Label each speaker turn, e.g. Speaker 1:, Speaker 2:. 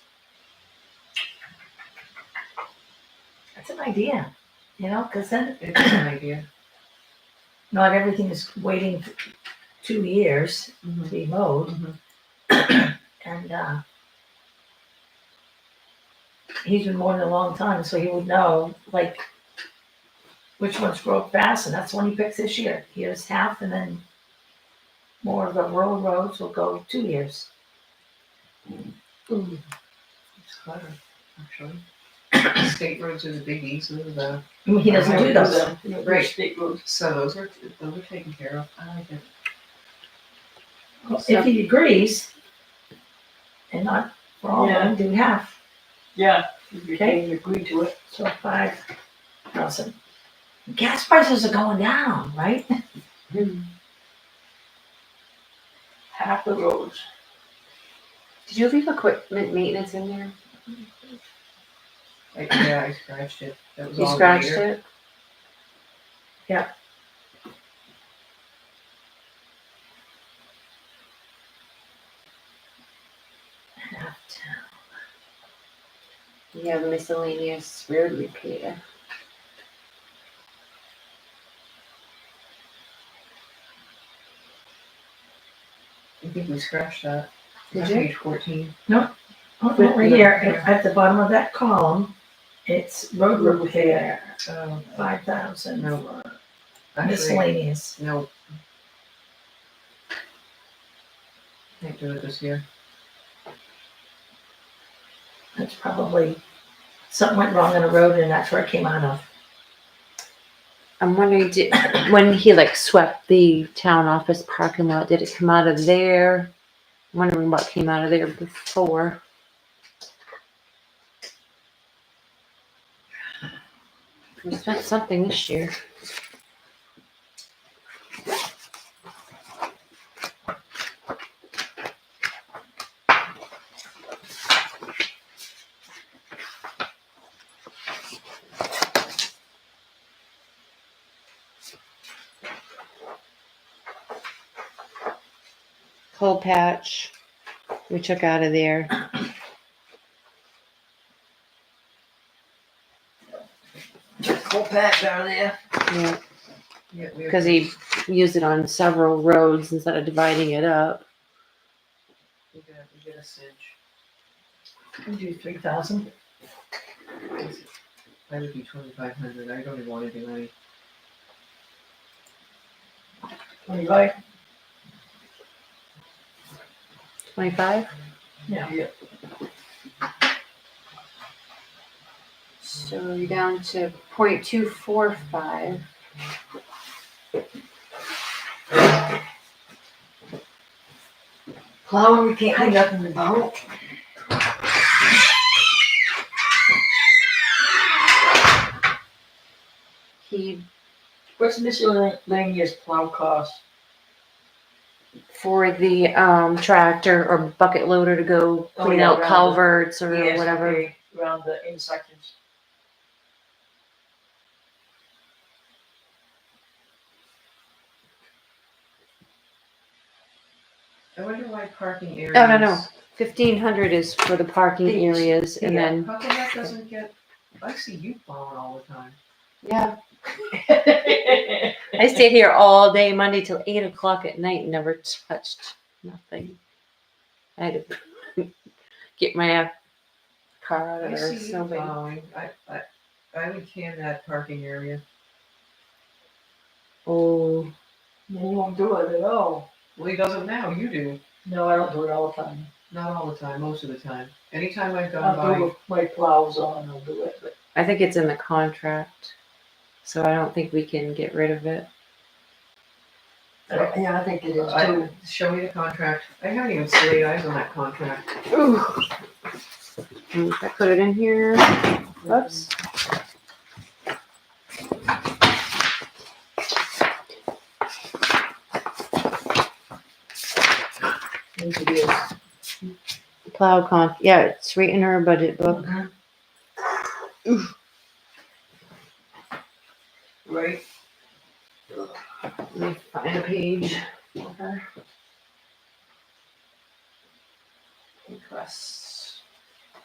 Speaker 1: That's an idea, you know, because then
Speaker 2: It is an idea.
Speaker 1: not everything is waiting f- two years to be mowed.
Speaker 3: Mm-hmm.
Speaker 2: Mhm.
Speaker 1: And, uh, he's been mowing a long time, so he would know, like, which ones grow fast, and that's one he picks this year. Here's half, and then more of the rural roads will go two years.
Speaker 2: Ooh, It's clever, actually. State roads are the big easements, though.
Speaker 1: I mean, He doesn't do those.
Speaker 2: Right.
Speaker 4: State roads.
Speaker 2: So those are, those are taken care of. I like it.
Speaker 1: If he agrees, and not, for all of them, do half,
Speaker 4: Yeah, if you
Speaker 1: Okay.
Speaker 4: can agree to it.
Speaker 1: so five thousand. Gas prices are going down, right?
Speaker 4: Half the roads.
Speaker 3: Did you leave equipment maintenance in there?
Speaker 2: Like, yeah, I scratched it. That was
Speaker 3: You
Speaker 2: all
Speaker 3: scratched
Speaker 2: later.
Speaker 3: it?
Speaker 1: Half town.
Speaker 3: You have miscellaneous road repair.
Speaker 2: I think we scratched that.
Speaker 3: Did
Speaker 2: On
Speaker 3: you?
Speaker 2: Page fourteen.
Speaker 1: Oh,
Speaker 2: With
Speaker 1: Over
Speaker 2: the-
Speaker 1: here, at at the bottom of that column, it's road
Speaker 4: Road
Speaker 1: repair,
Speaker 2: Um,
Speaker 1: five thousand
Speaker 2: No, uh,
Speaker 1: for
Speaker 2: actually,
Speaker 1: miscellaneous.
Speaker 2: no. Can't do it this year.
Speaker 1: That's probably, something went wrong on the road and that's where it came out of.
Speaker 3: I'm wondering, did, when he like swept the town office parking lot, did it come out of there? I'm Wondering what came out of there before. We spent something this year. Coal patch, we took out of there.
Speaker 4: Whole pack down there.
Speaker 3: Yeah,
Speaker 2: Yeah, we-
Speaker 3: because he used it on several roads instead of dividing it up.
Speaker 2: We did, we did a cinch.
Speaker 1: Can do three thousand.
Speaker 2: I would be twenty-five hundred. I don't even want to do any.
Speaker 1: Right.
Speaker 3: Twenty-five?
Speaker 4: Yeah.
Speaker 3: So you're down to point two four five.
Speaker 4: Plowing, we can't do nothing about.
Speaker 3: He,
Speaker 4: What's miscellaneous plow cost?
Speaker 3: for the, um, tractor or bucket loader to go
Speaker 4: Oh,
Speaker 3: clean
Speaker 4: yeah,
Speaker 3: out
Speaker 4: rather.
Speaker 3: culverts or
Speaker 4: Yes,
Speaker 3: whatever.
Speaker 4: okay, Around the intersections.
Speaker 2: I wonder why parking areas.
Speaker 3: Oh, no, no. Fifteen hundred is for the parking
Speaker 4: These.
Speaker 3: areas and
Speaker 4: Yeah.
Speaker 3: then,
Speaker 2: How come that doesn't get, I see you plowing all the time.
Speaker 3: yeah. I stayed here all day Monday till eight o'clock at night, and never touched nothing. I had to get my uh, car out of
Speaker 2: I
Speaker 3: there,
Speaker 2: see you
Speaker 3: so bad.
Speaker 2: plowing. I, I, I would can that parking area.
Speaker 3: Oh.
Speaker 4: You won't do it at all.
Speaker 2: Well, he doesn't now. You do.
Speaker 4: No, I don't do it all the time.
Speaker 2: Not all the time, most of the time. Anytime I've gone
Speaker 4: I'll do
Speaker 2: by,
Speaker 4: it with my plows on, I'll do it, but
Speaker 3: I think it's in the contract, so I don't think we can get rid of it.
Speaker 4: I- yeah, I think it is
Speaker 2: I,
Speaker 4: too.
Speaker 2: show me the contract. I haven't even laid eyes on that contract.
Speaker 3: Ooh. I put it in here. Oops.
Speaker 4: Yes, it is.
Speaker 3: Plow comp. Yeah, it's right in our budget book.
Speaker 2: Right.
Speaker 3: Let me find a page. for her. Requests.